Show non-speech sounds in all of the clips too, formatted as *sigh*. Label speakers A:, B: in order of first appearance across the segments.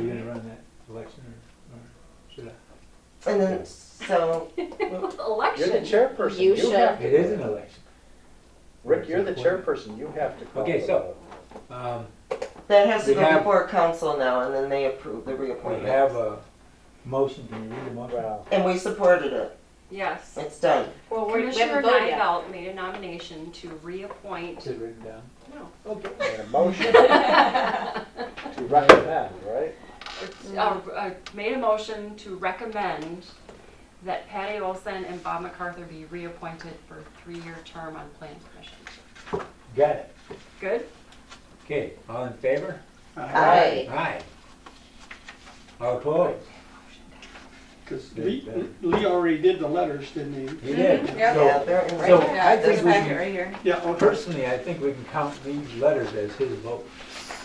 A: run that election, or, or should I?
B: And then, so,
C: You're the
D: Election.
C: chairperson.
D: You
C: have
D: should.
C: to
A: It is
C: do
A: an election.
C: Rick, you're the chairperson. You have to call.
A: Okay,
C: the
A: so-
C: vote.
A: Um,
B: that has to
A: We have-
B: go before council now, and then they approve the
A: we
B: reappointment.
A: have a motion, can you read the motion?
C: Well,
B: And we supported it,
D: Yes.
B: it's done.
D: Well, we we
E: Commissioner
D: haven't voted yet.
E: Nivell made a nomination to reappoint.
A: Is it written down?
E: No.
C: and a motion
D: *laughs*
C: to recommend, right?
F: Mm-hmm.
E: Uh, uh, Made a motion to recommend that Patty Olson and Bob MacArthur be reappointed for a three-year term on planning commission.
A: Got it.
E: Good?
A: Okay, all in favor?
B: Aye.
A: Aye. All opposed?
G: Because
A: Yeah,
G: Lee,
A: better.
G: Lee already did the letters, didn't he?
A: You did.
F: Yeah.
B: Yeah,
A: So
B: they're in
A: So,
B: right
A: I think
F: There's a
A: we
F: packet
A: can-
F: right here.
G: Yeah, okay.
A: personally, I think we can count these letters as his vote,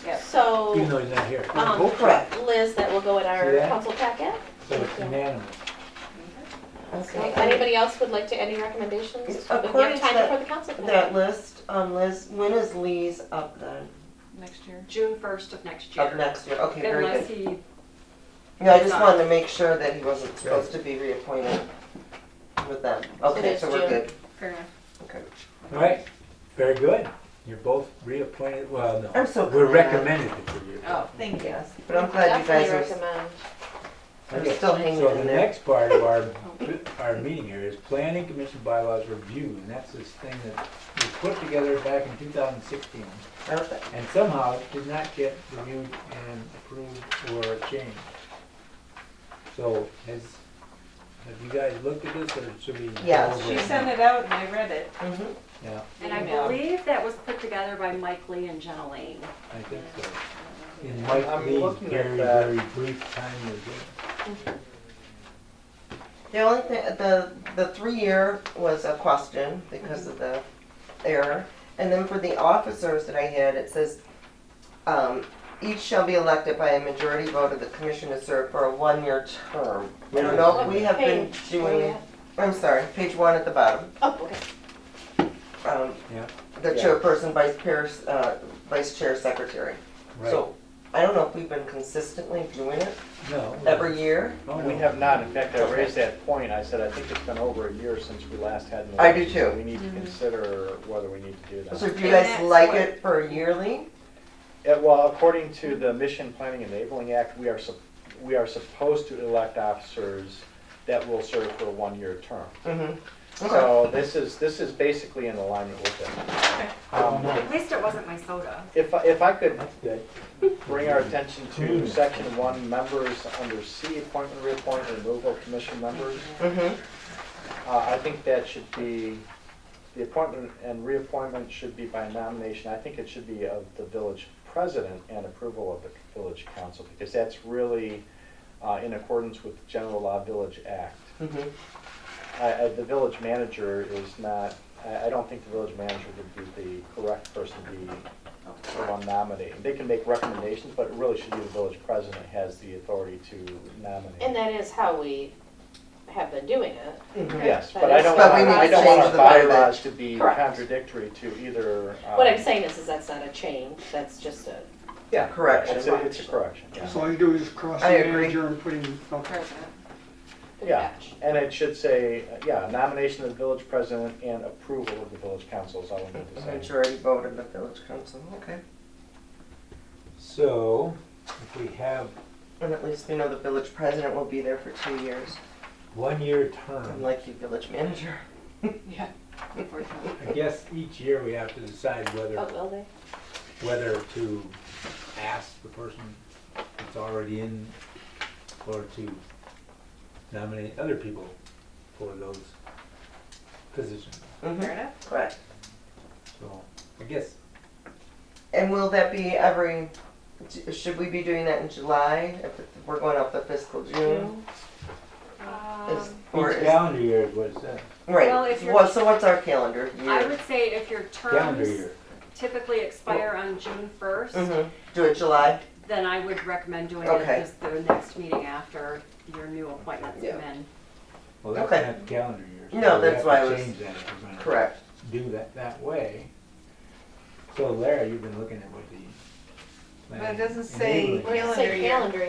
A: even
D: So,
A: though he's not here.
B: Oh.
D: um,
B: Correct.
D: Liz, that will go in
A: See
D: our
A: that?
D: council packet.
B: Oh.
A: So it's unanimous.
B: Okay.
D: Anybody else would like to, any recommendations? We have
B: According to
D: time
B: that-
D: before the council. can
B: That
D: vote.
B: list, um, Liz, when is Lee's up then?
F: Next year.
E: June 1st of next
B: Up
E: year.
B: next year, okay, very
E: Unless
B: good.
E: he,
B: Yeah, I just wanted to make sure that he wasn't supposed to be reappointed with them. Okay,
D: is
B: so we're
D: June.
B: good.
E: fair enough.
B: Okay.
A: All right, very good. You're both reappointed, well, no.
B: I'm so
A: We're
B: glad.
A: recommended for you.
F: Oh,
B: Thank you. But I'm glad you
D: Definitely
B: guys are,
D: recommend.
B: are still hanging
A: So the
B: in there.
A: next part of our, our meeting here is planning commission bylaws review, and that's this thing that was put together back in 2016,
B: Okay.
A: and somehow did not get reviewed and approved or changed. So has, have you guys looked at this, or should we? go
B: Yeah,
A: over
F: she
A: it
F: sent
A: now?
F: it out and I read it.
B: Mhm.
A: Yeah,
E: And I
F: Email.
E: believe that was put together by Mike Lee and Jenna Lane.
A: I think so. In Mike
C: I'm
A: Lee's
C: looking at
A: very,
C: that.
A: very brief time review.
B: The only thing, the, the three-year was a question because of the error. And then for the officers that I had, it says, um, each shall be elected by a majority vote of the commission to serve for a one-year term. I don't know if we have been
D: Page, where you
B: doing,
D: at?
B: I'm sorry, page one at the bottom.
D: Oh, okay.
B: Um,
A: Yeah.
B: The
C: Yeah.
B: chairperson, vice chair, uh, vice chair, secretary.
A: Right,
B: So I don't know if we've been consistently doing it
A: no.
B: every year.
A: Oh, no,
C: We
A: no.
C: have not, in fact, I raised that point, I said, I think it's been over a year since we last had an
B: I do
C: election, so
B: too.
C: We need
D: Mm-hmm.
C: to consider whether we need to do
B: So
C: that.
B: do you
F: And
B: guys
F: that's
B: like
F: what-
B: it for yearly?
C: Yeah, Uh, Well, according to the Mission Planning Enabling Act, we are, sup- we are supposed to elect officers that will serve for a one-year term.
B: Mm-hmm. Okay.
C: So this is, this is basically in alignment with it. Um,
E: At least it wasn't my soda.
C: If, I- if I could
A: That's good.
C: bring our attention to section one, members under C, appointment, reappointment, removal of commission members.
B: Mm-hmm.
C: Uh, I think that should be, the appointment and reappointment should be by nomination. I think it should be of the village president and approval of the village council, because that's really uh, in accordance with the general law village act.
B: Mm-hmm.
C: I- I- The village manager is not, I I don't think the village manager would be the correct person to be the one nominating. They can make recommendations, but it really should be the village president has the authority to
D: And
C: nominate.
D: that is how we have been doing it.
C: Mm-hmm. Yes,
D: that
C: but I
D: is-
C: don't
B: But
C: want,
B: we need
C: I
B: to
C: don't want
B: change the
C: our
B: bylaw.
C: bylaws to be
D: Correct.
C: contradictory to either.
D: What I'm
C: um,
D: saying is, is that's not a change, that's just a,
C: Yeah.
B: Correction.
C: It's a, it's a correction, yeah.
G: So all you do is cross the
B: I agree.
G: manager and put him, okay.
F: President.
D: a
C: Yeah.
D: batch.
C: And it should say, uh, yeah, nomination of the village president and approval of the village council is all we need to say.
B: Majority vote of the village council, okay.
A: So, if we have
B: And at least we know the village president will be there for two years,
A: one-year
C: Um.
A: term,
B: unlike you village
C: *laughs*
B: manager.
F: Yeah, unfortunately.
A: I guess each year we have to decide
D: Oh,
A: whether,
D: will they?
A: whether to ask the person that's already in or to nominate other people for those positions.
B: Mm-hmm.
F: Fair enough.
B: Correct.
A: So, I guess,
B: And will that be every, should we be doing that in July? If it- we're going off the fiscal June? Is- Or
A: each
B: is,
A: calendar year is what it says,
E: um, Well, if
B: right,
E: you're-
B: well, so what's our calendar
E: I
B: year?
E: would say if your
A: calendar
E: terms
A: year.
E: typically expire on June 1st,
B: Mhm. Do it July?
E: then I would recommend doing it
B: Okay.
E: as the next meeting after your new appointments
B: Yeah.
E: come in.
A: Well, that's
B: Okay.
A: not calendar year. so
B: No,
A: we
B: that's
A: have to
B: why I was-
A: Change that if we're gonna
B: Correct.
A: do that that way. So Larry, you've been looking at what the.
F: But it doesn't say
A: enabling-
F: Calendar
D: Say
F: year.
D: calendar